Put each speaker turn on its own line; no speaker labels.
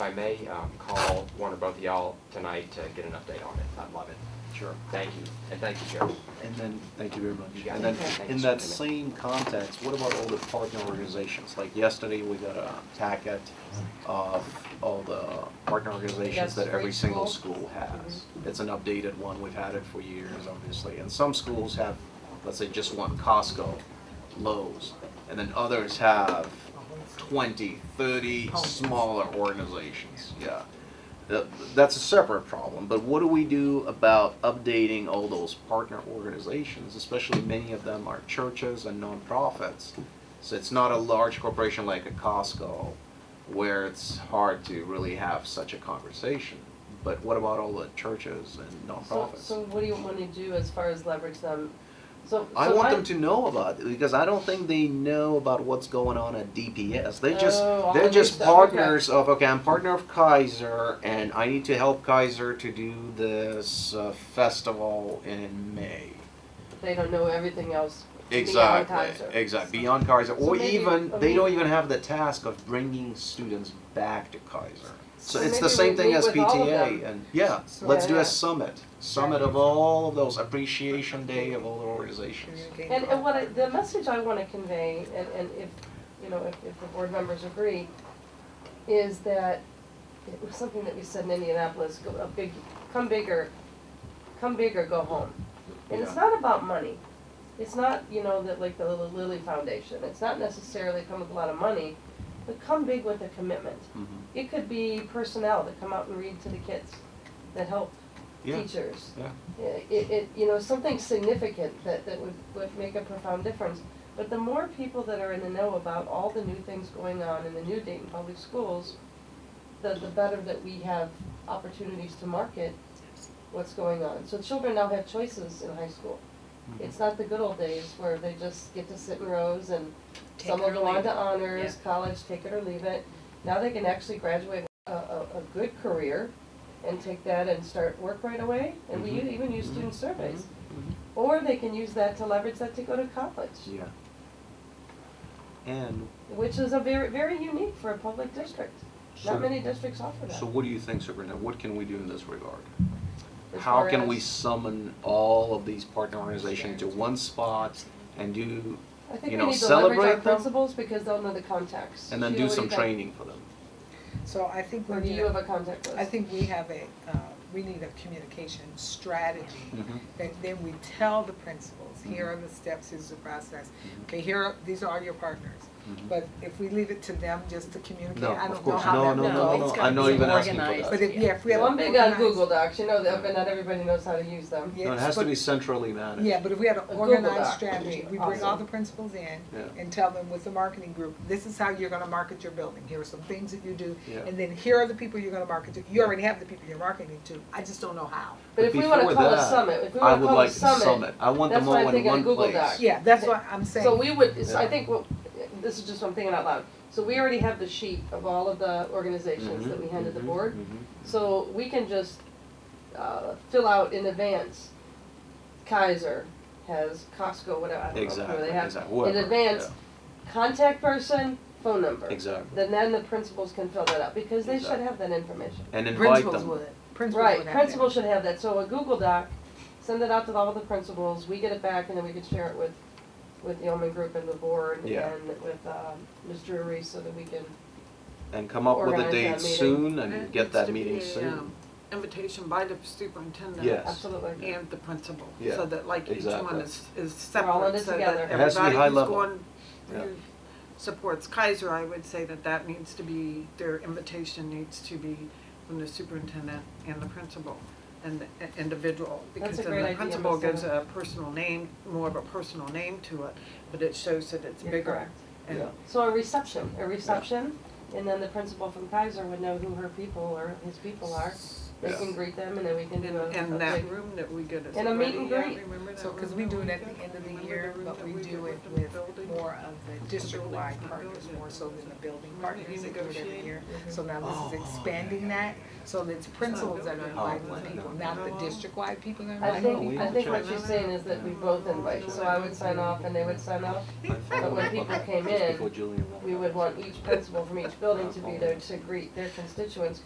If I may, um, call one or both of y'all tonight to get an update on it. I'd love it.
Sure.
Thank you, and thank you, Sheriff.
And then, thank you very
You
much.
got
And
it.
then,
Thank
in
you.
that same context, what about all the partner organizations? Like yesterday, we got a packet of all the partner organizations
Yes,
that
for
every
each
single
school.
school has. It's an updated one, we've had it for years, obviously, and some schools have, let's say, just one Costco, Lowe's, and then others have 20, 30 smaller organizations, yeah. That- Uh, That's a separate problem, but what do we do about updating all those partner organizations, especially many of them are churches and nonprofits? So it's not a large corporation like a Costco where it's hard to really have such a conversation. But what about all the churches and
So,
nonprofits?
so what do you want to do as far as leverage them? So,
I
so
want
I-
them to know about it because I don't think they know about what's going on at DPS. They just
Oh, I
they're just
understand. Okay.
partners of okay, I'm partner of Kaiser and I need to help Kaiser to do this uh, festival in May.
They don't know everything else. beyond
Exactly.
Kaiser.
Exactly. Beyond Kaiser
So
or
maybe-
even
I
they don't
mean-
even have the task of bringing students back to Kaiser. So
So
it's the
maybe
same
we
thing
meet
as
with all of
PTA
them.
and yeah,
So-
let's
Yeah,
do
yeah.
a summit. Summit of all of those appreciation day of all the organizations.
And, and what I, the message I want to convey, and, and if, you know, if, if the board members agree, is that it was something that we said in Indianapolis, go, a big, come bigger, come bigger, go home. And it's
Yeah.
not about money. It's not, you know, that like the Lil- Lilly Foundation, it's not necessarily come with a lot of money, but come big with a commitment.
Mhm.
It could be personnel that come out and read to the kids, that help
Yeah.
teachers.
Yeah.
It, it, you know, something significant that, that would, would make a profound difference. But the more people that are in the know about all the new things going on in the new Dayton Public Schools, the, the better that we have opportunities to market what's going on. So children now have choices in high school. It's not the good old days where they just get to sit in rows and
Take
some
it
will
or
go on
leave
to
it.
honors, college, take it or leave it. Now they can actually graduate a, a, a good career and take that and start work right away, and we u-
Mhm.
even use
Mhm.
student surveys.
Mhm.
Or they can use that to leverage that to go to college,
Yeah. And
which is a very, very unique for a public district.
So-
Not many districts offer that.
so what do you think, Superintendent? What can we do in this regard?
as
How
far
can we
as-
summon all of these partner organizations to one spot and do,
I think
you
we
know,
need to leverage
celebrate
our
them?
principals because they'll know the contacts.
and then
Sheila,
do
what
some
you think?
training for them?
So I think
Or
we're,
do you have
gonna-
a contact list?
I think we have a, uh, we need a communication strategy.
Mhm.
That then we tell the principals, here are the steps, here's the process.
Mm-hmm.
Okay, here, are- these are your partners.
Mhm.
But if we leave it to them just to communicate,
No,
I
of
don't know
course,
how
no,
that
no,
will go.
no, no,
it's
I'm
gotta
not
be
even asking for
organized.
that.
But if, yeah, if we have.
One big on
organized-
Google Docs, you know that, but not everybody knows how to use them.
No, it
Yes,
has to
but-
be centrally managed.
Yeah, but if we had an
Google
organized
Doc.
strategy, we bring all
Awesome.
the principals in
Yeah.
and tell them with the marketing group, this is how you're gonna market your building, here are some things that you do.
Yeah.
And then here are the people you're gonna market to, you already have the people you're marketing to, I just don't know how.
But if we wanna
before
call a
that,
summit, if we
I
wanna
would
call a
like
summit,
I want them
that's why I
all in
think a
one
Google
place.
Doc.
Yeah, that's what I'm saying.
So we would, so I
Yeah.
think, what- this is just what I'm thinking out loud. So we already have the sheet of all of the organizations that we
Mhm,
handed the
mhm,
board.
mhm.
So we can just uh, fill out in advance, Kaiser has Costco, whatever, I don't know who
Exactly,
they have.
exactly, whoever,
In advance, contact person, phone number.
Exactly.
Then then the principals can fill that out, because they should
Exactly.
have that information.
And invite
Principals
them.
would, principals would have
Right,
that.
principals should have that, so a Google Doc, send it out to all the principals, we get it back, and then we can share it with, with the Omen Group and the board,
Yeah.
and with, um, Ms. Drury, so that we can,
And come up with a
Organize
date
that meeting.
soon and get that meeting soon.
um,
Invitation by the superintendent.
Yes.
absolutely.
And the principal,
Yeah,
so that like each
exactly.
one is, is
We're all in
separate,
it
so
together.
that
It has to be
everybody
high
who's
level.
going,
Yeah.
who supports Kaiser, I would say that that needs to be, their invitation needs to be from the superintendent and the principal and the i- individual.
That's
Because
a
then
great
the
idea,
principal gives
Marcella.
a personal name, more of a personal name to it, but it shows that it's
You're
bigger.
correct.
and
Yeah.
So a reception, a reception, and then the principal from Kaiser would know who her people or his people are, They
Yeah.
can greet them and then we can
And,
do a, a
and that
big,
room that we get is.
And a meet
already-
and
yeah,
greet.
remember that
So, because
room
we
that
do it at the
got?
end of the
Remember
year,
room
but
that
we
did
do it
the
with
building?
more of the district-wide
building.
partners, more so than the building
Right, you
partners that do it every
negotiate.
year. So now this is expanding that, so Mm-hmm. it's principals that are inviting the people, not the district-wide people that are
I
inviting.
think,
we
I
can
think what
check.
she's saying is that we both invite, so I would sign off and they would sign off. But when people came in, we would want each principal from each building to be there to greet their constituents